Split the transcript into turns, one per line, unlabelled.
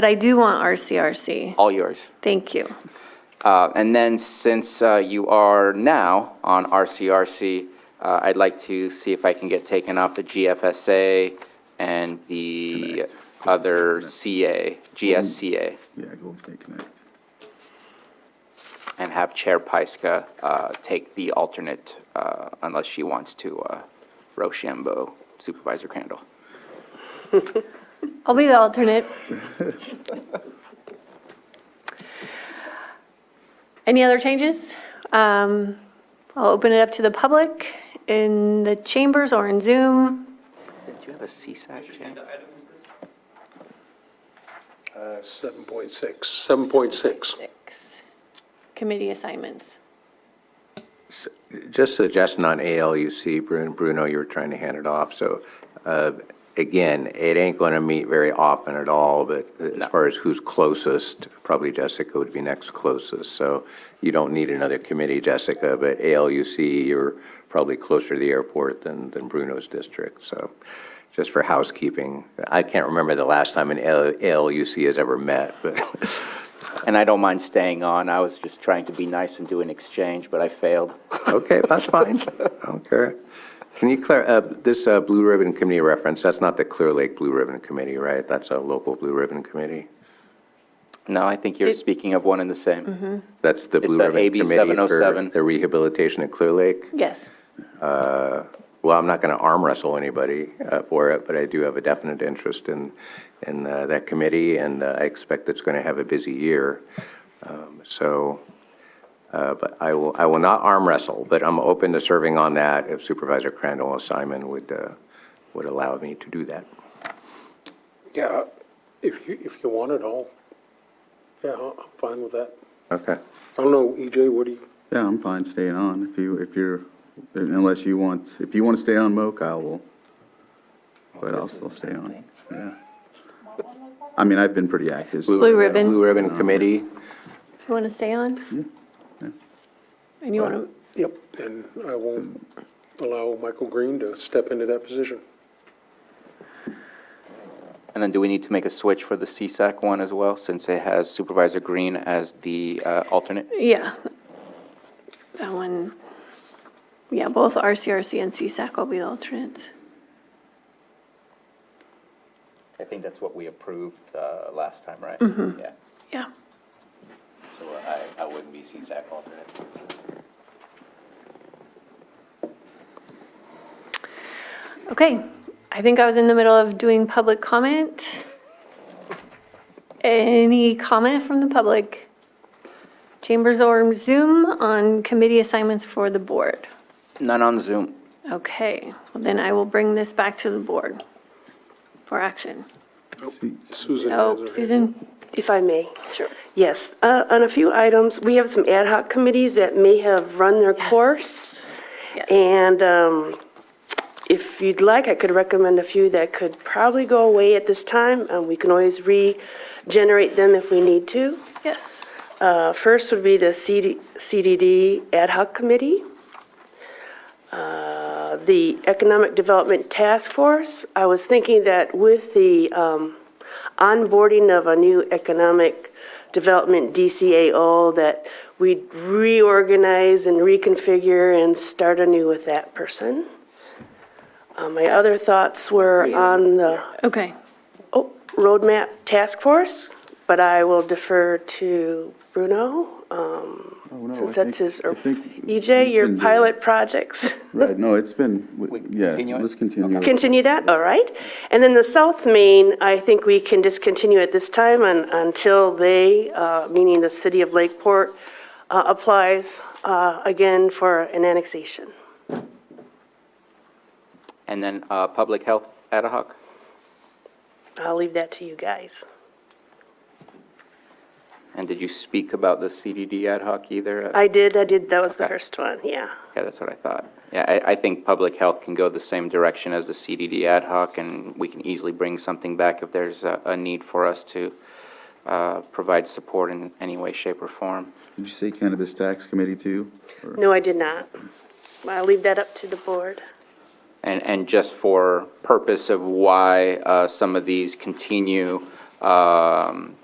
But I do want RCRC.
All yours.
Thank you.
Uh, And then, since uh, you are now on RCRC, uh, I'd like to see if I can get taken off the GFSA and the other CA, GSCA,
Yeah, Golden State Connect.
and have Chair Pyska uh, take the alternate uh, unless she wants to, uh, Rochambeau, Supervisor Crandall.
I'll be the alternate. Any other changes? Um, I'll open it up to the public in the chambers or in Zoom.
Did you have a CSAC, Jan?
7.6, 7.6.
Committee assignments.
Just suggesting on ALUC, Bruno, Bruno, you were trying to hand it off, so, uh, again, it ain't going to meet very often at all, but as far as who's closest, probably Jessica would be next closest, so you don't need another committee, Jessica, but ALUC, you're probably closer to the airport than, than Bruno's district, so, just for housekeeping. I can't remember the last time an ALUC has ever met, but
And I don't mind staying on. I was just trying to be nice and do an exchange, but I failed.
Okay, that's fine. I don't care. Can you clar, uh, this, uh, Blue Ribbon Committee reference, that's not the Clear Lake Blue Ribbon Committee, right? That's a local Blue Ribbon Committee?
No, I think you're speaking of one and the same.
That's the
It's
Blue
the
Ribbon
AB
Committee for
707.
the rehabilitation of Clear Lake?
Yes.
Well, I'm not going to arm wrestle anybody, uh, for it, but I do have a definite interest in, in, uh, that committee, and uh, I expect it's going to have a busy year. Um, so, uh, but I will, I will not arm wrestle, but I'm open to serving on that if Supervisor Crandall and Simon would, uh, would allow me to do that.
Yeah, if you, if you want it all, yeah, I'm fine with that.
Okay.
I don't know, EJ, what do you,
Yeah, I'm fine staying on if you, if you're, unless you want, if you want to stay on MOC, I will. But I'll still stay on, yeah. I mean, I've been pretty active. so-
Blue Ribbon.
Blue Ribbon Committee,
You want to stay on? And you want to,
yep, and I won't allow Michael Green to step into that position.
And then do we need to make a switch for the CSAC one as well, since it has Supervisor Green as the uh, alternate?
yeah. That one, yeah, both RCRC and CSAC will be the alternates.
I think that's what we approved uh, last time, right? Yeah,
Yeah.
so I, I wouldn't be CSAC alternate.
Okay, I think I was in the middle of doing public comment. Any comment from the public? Chambers or Zoom on committee assignments for the board?
None on Zoom.
Okay, well then I will bring this back to the board for action.
Susan has her
Oh,
hand
Susan?
If I may.
Sure.
Yes, uh, on a few items, we have some ad hoc committees that may have run their course.
Yes.
And um, if you'd like, I could recommend a few that could probably go away at this time. Uh, We can always regenerate them if we need to.
Yes.
Uh, First would be the CD CDD Ad hoc Committee, Uh, the Economic Development Task Force. I was thinking that with the um, onboarding of a new Economic Development DCAO, that we'd reorganize and reconfigure and start anew with that person. Uh, My other thoughts were on the
Okay,
oh, roadmap task force, but I will defer to Bruno, um,
Oh, no,
since
I
that's
think-
his, or
I think
EJ,
we
your
can do it.
pilot projects.
Right, no, it's been,
We
yeah,
continue it?
let's continue. it.
Continue that, all right? And then the South Main, I think we can discontinue at this time un- until they, uh, meaning the city of Lakeport, uh, applies uh, again for an annexation.
And then uh, Public Health Ad hoc?
I'll leave that to you guys.
And did you speak about the CDD Ad hoc either?
I did, I did, that was the
Okay.
first one, yeah.
Yeah, that's what I thought. Yeah, I, I think public health can go the same direction as the CDD ad hoc, and we can easily bring something back if there's a, a need for us to uh, provide support in any way, shape, or form.
Did you say Cannabis Tax Committee too? Or-
No, I did not. I'll leave that up to the board.
And, and just for purpose of why uh, some of these continue, um,